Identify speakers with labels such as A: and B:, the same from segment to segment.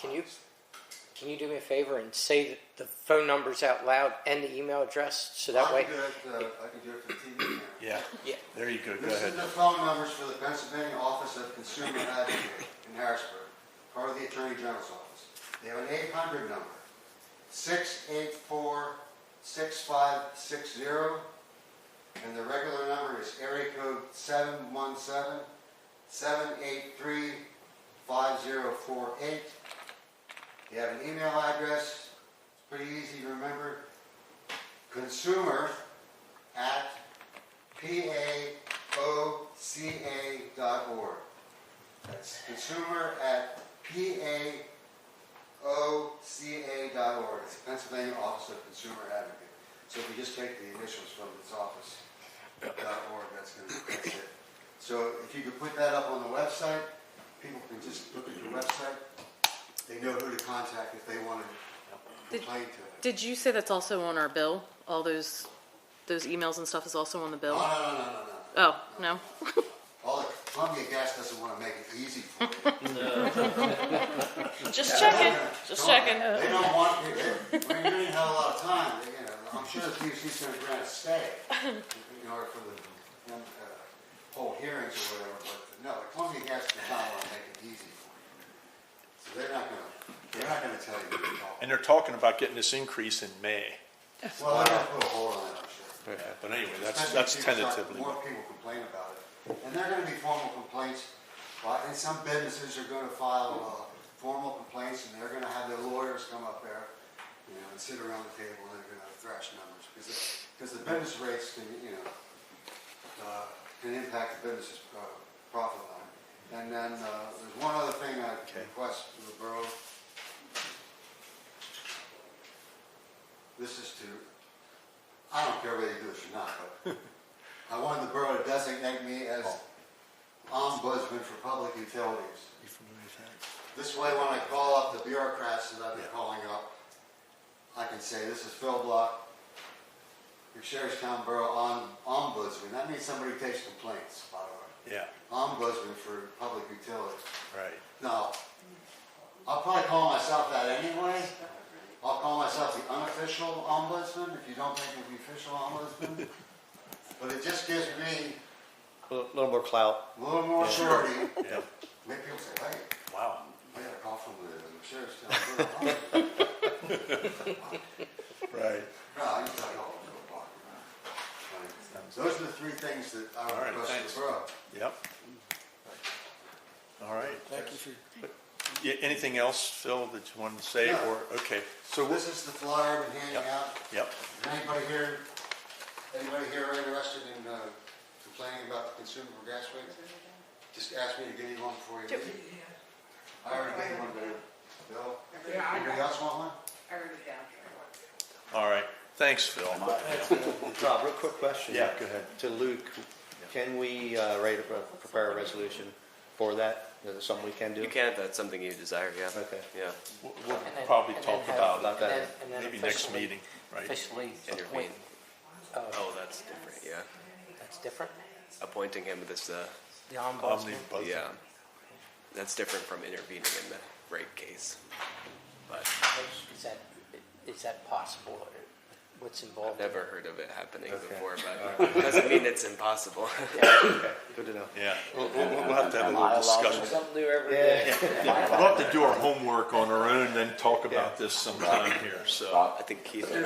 A: Can you can you do me a favor and say the, the phone numbers out loud and the email address so that
B: I
A: way?
B: can do it, uh, I can do it for the TV camera.
C: Yeah,
A: Yeah.
C: there you go, go
B: This
C: ahead.
B: is the phone numbers for the Pennsylvania Office of Consumer Advocate in Harrisburg, part of the Attorney General's office. They have an 800 number, 684-6560, and the regular number is area code 717-783-5048. They have an email address, it's pretty easy to remember, consumer at P-A-O-C-A dot org. That's consumer at P-A-O-C-A dot org. It's Pennsylvania Office of Consumer Advocate. So if you just take the initials from its office dot org, that's gonna, that's it. So if you could put that up on the website, people can just look at your website. They know who to contact if they want to
D: Did-
B: complain to it.
D: Did you say that's also on our bill? All those, those emails and stuff is also on the
B: No,
D: bill?
B: no, no, no, no, no.
D: Oh, no?
B: All the Oh, Columbia Gas doesn't want to make it easy for you.
D: Just
B: Don't- They don't want, you- they, when you didn't have a lot of time, they, you know, I'm sure the PUC's gonna grant a stay in order for the, um, uh, whole hearings or whatever, but no, the Columbia Gas does not want to make it easy for you. So they're not gonna, they're not gonna tell you what to call.
C: And they're talking about getting this increase in May.
B: Well, they're gonna put a hole in it, I'm sure.
C: But anyway, that's,
B: Especially
C: that's
B: if people start-
C: tentatively.
B: More people complain about it, and there are gonna be formal complaints, Well, and some businesses are gonna file, uh, formal complaints, and they're gonna have their lawyers come up there, you know, and sit around the table, and they're gonna thrash numbers, because, because the business rates can, you know, uh, can impact the business's uh, profit line. And then, uh, there's one other thing I
C: Okay.
B: request from the borough. This is to I don't care whether you do this or not, but I wanted the borough to designate me as ombudsman for public utilities. This way, when I call up the bureaucrats that I've been calling up, I can say, this is Phil Block, your Sherrishtown Borough om- Ombudsman. That means somebody who takes complaints, by the
C: Yeah,
B: way. Ombudsman for public utilities.
C: right.
B: No. I'll probably call myself that anyway. I'll call myself the unofficial ombudsman, if you don't think of the official ombudsman. But it just gives me
E: A little more clout.
B: a little more surety.
C: Yeah,
B: Make people say, hey,
C: wow.
B: I got a call from the sheriff's town.
C: Right.
B: No, I just got a call from the block. Those are the three things that I
C: All
B: would
C: right,
B: request
C: thanks.
B: for the borough.
C: Yep. All right. Thank you for. Anything else, Phil, that you wanted to say
B: No.
C: or, okay, so, we'll-
B: This is the flyer I've been handing out.
C: yep,
B: Is Anybody here, anybody here interested in uh, complaining about the consumer for gas rates? Just ask me to give you one before you leave. I already gave one to Bill.
F: Yeah, I
B: Anybody else want one?
F: I already have.
C: all right. Thanks, Phil.
E: Rob, real quick question.
C: Yeah, go ahead.
E: To Luke, can we uh, write, a- prepare a resolution for that? Is it something we can do?
G: You can if that's something you desire, yeah.
E: Okay.
G: Yeah,
C: We'll we'll
A: And then-
C: probably
A: and then
C: talk
A: have-
C: about
E: about
C: it
E: that.
A: and then- and then
C: maybe next
A: officially-
C: meeting, right?
A: Officially
G: intervene.
A: appoint.
G: Oh, that's different, yeah.
A: That's different.
G: Appointing him as the,
A: The ombudsman.
C: Omnibus.
G: yeah. That's different from intervening in the rape case. But
A: Is that is that possible? Or What's involved? in it?
G: never heard of it happening before, but doesn't mean it's impossible.
E: Good to know.
C: Yeah, we'll, we'll we'll have to have a little discussion.
A: Something new every day.
E: Yeah.
C: Yeah, We'll have to do our homework on our own and then talk about this sometime here, so.
G: I think Keith,
A: Well,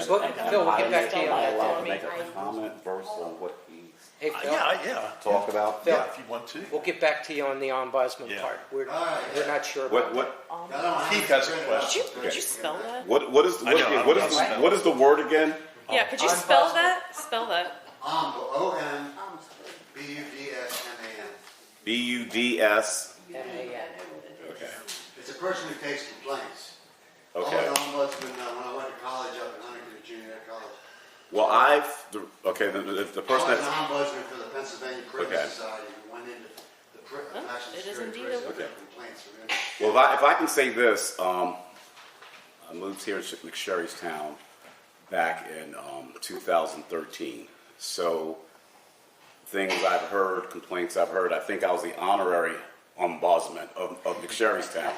A: Phil, we'll get back to you on
H: I
A: that.
H: allowed to make a comment versus on what he
A: Hey,
C: Uh,
A: Phil,
C: Yeah, yeah,
H: talked about.
C: yeah, if you want to.
A: we'll get back to you on the ombudsman
C: Yeah.
A: part. We're,
B: All right.
A: we're not sure about
H: What,
A: that.
H: what,
B: I don't have
C: Keith
B: anything
C: has a
B: printed out.
C: question.
D: Did you, did you spell that?
H: what, what is,
C: I know, I
H: what,
C: don't
H: what
C: know
H: is,
C: how to spell
H: what is the word again?
D: Yeah, could you
A: I'm
D: spell
A: possible.
D: that? Spell that.
B: Omb, O-M-B-U-D-S-M-A-N.
H: B U D S.
A: M-A-N.
B: It's a person who takes complaints.
H: Okay.
B: I was an ombudsman uh, when I went to college up in Huntington Junior College.
H: Well, I've, the- okay, the, the, the person
B: I was an
H: that's,
B: ombudsman for the Pennsylvania Prison
H: Okay.
B: Society, who went into the pri-
D: Huh?
B: national
D: It is
B: security
D: indeed
B: prison,
D: a-
B: with complaints from inmates.
H: well, if I, if I can say this, um, I moved here to McSherrystown back in, um, two thousand thirteen. So things I've heard, complaints I've heard, I think I was the honorary ombudsman of, of McSherrystown.